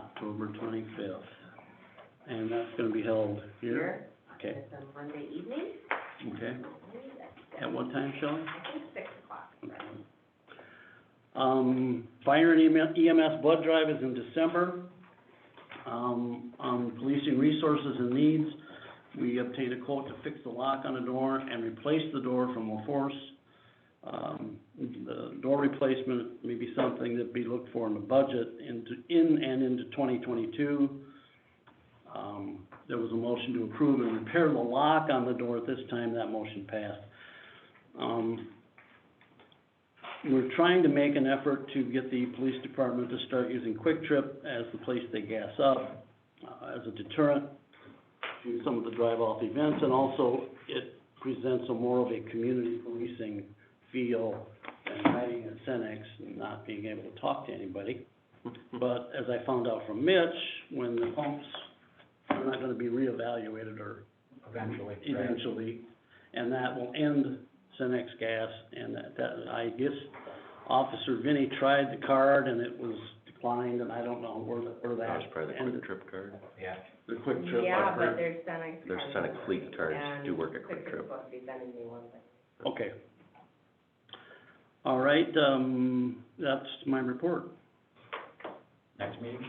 October twenty-fifth. And that's gonna be held here? Here, Okay, it's a Monday evening, okay. At what time, Shelley? I think six o'clock. Um, fire and EMS blood drive is in December. Um, on policing resources and needs, we obtained a quote to fix the lock on the door and replace the door from La Force. Um, the door replacement may be something that be looked for in the budget into, in and into twenty twenty-two. Um, there was a motion to approve and repair the lock on the door at this time, that motion passed. Um, we're trying to make an effort to get the police department to start using Quick Trip as the place they gas up, uh, as a deterrent to some of the drive-off events, and also it presents a more of a community policing feel and hiding at Cenex and not being able to talk to anybody. But as I found out from Mitch, when the pumps are not gonna be reevaluated or eventually. eventually, and that will end Cenex gas, and that, that, I guess Officer Vinnie tried the card and it was declined, and I don't know where, the- where that That was probably the ended. Quick Trip card. Yeah, The quick trip, I Yeah, but heard. there's Senex. There's Senex fleet cars do work at Quick Trip. And Quick Trip's supposed to be sending me one, but Okay. All right, um, that's my report. next meeting?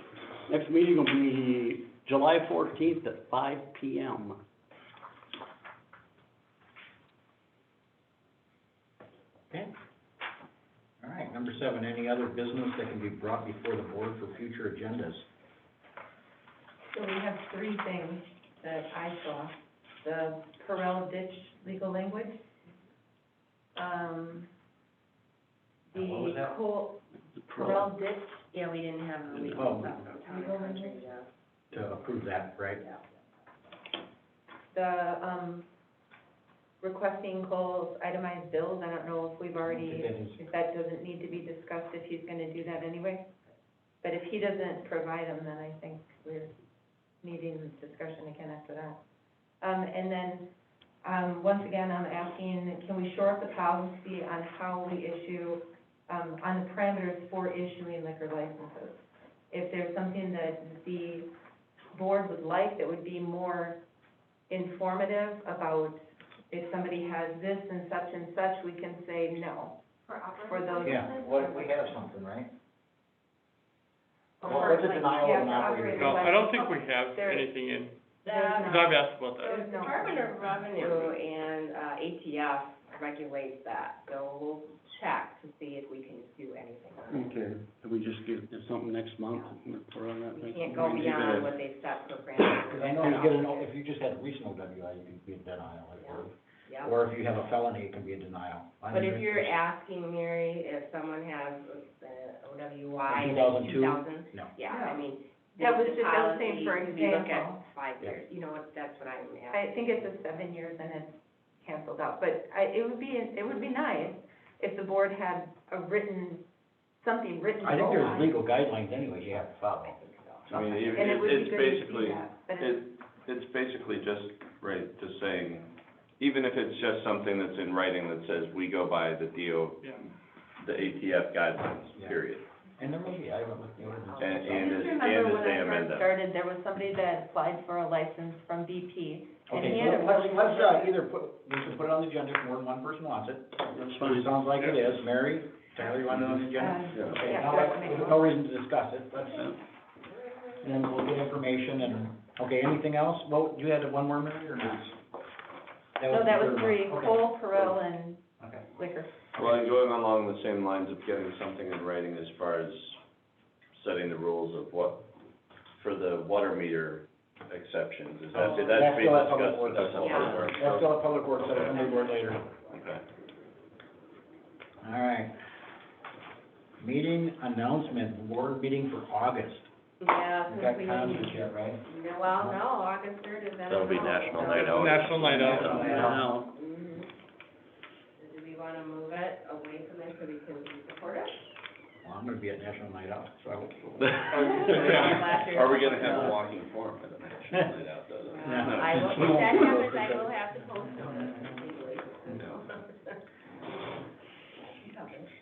Next meeting will be July fourteenth at five P M. Okay. All right, number seven, any other business that can be brought before the board for future agendas? So we have three things that I saw. The Corral ditch legal language, um, the What was that? coal, Corral ditch, yeah, we didn't have the Mm-hmm. legal Oh. stuff. Legal language. To approve that, right? The, um, requesting Cole's itemized bills, I don't know if we've already, That is- if that doesn't need to be discussed, if he's gonna do that anyway. But if he doesn't provide them, then I think we're needing discussion again after that. Um, and then, um, once again, I'm asking, can we shore up the policy on how we issue, um, on the parameters for issuing liquor licenses? If there's something that the board would like that would be more informative about if somebody has this and such and such, we can say no. For those. Yeah, what, we have something, right? Or, Well, what's a like, denial of yeah, an for operating operating No, I don't think we have There- anything in, There's because not- I've asked about that. there's The no- Department of Revenue and, uh, ATF regulates that, so we'll check to see if we can do anything. on Okay. Can we just get something next month, we're on that it. We next can't go month? beyond what they set for Cause parameters. I know you get an, if you just had recent OWI, you could be a denial, like, or, Yeah. or if you have a felony, it can be a denial. But if you're asking, Mary, if someone has uh OWI in 2002? two thousand, No. yeah, I mean, That was the just, I was policy, saying for we look at example. five Yeah. years, you know, what? that's what I'm asking. I think it's a seven years and it's canceled out, but I, it would be, it would be nice if the board had a written, something written. I think goal there's on it. legal guidelines anyway you have to follow. I think so. I mean, it- And it would be it's good to see basically, that, But it's, it, it's basically just, right, just saying, even if it's just something that's in writing that says, we go by the DO, Yeah. the ATF guidelines, Yeah. period. And there may be, I haven't looked at the ordinance. And- I and just as- remember and as when they I amend first them. started, there was somebody that applied for a license from BP. and Okay, he had a so let's, really let's, good- uh, either put, we can put it on the agenda if more than one person wants it. That's It fine. sounds like it is. Mary, Tyler, you want it on the agenda? Uh, Yeah. Okay, yeah, now, that's there's me. no reason to discuss it, let's, Yeah. then we'll get information and, okay, anything else? Well, you had one more minute or not? No, the that was third one. three, Okay, Cole, Perrell, and Okay. Liquor. Well, and going along the same lines of getting something in writing as far as setting the rules of what, for the water meter exceptions, is that, Oh, that's being still at Public discussed with Works. us all Yeah. over. That's still a public works, so we'll move on later. Okay. All right. Meeting announcement, board meeting for August. Yeah, We've since got we comments didn't, yet, right? no, well, no, August third is. That'll be National Night Out. National Night Out. National Night Out. Now, Mhm. So Do we wanna move it away from it so we can support it? Well, I'm gonna be at National Night Out, so I will. Are we gonna have a walking forum? I don't know, I should find out, though. No. Well, Uh, I will, if that happens, I will have to postpone it.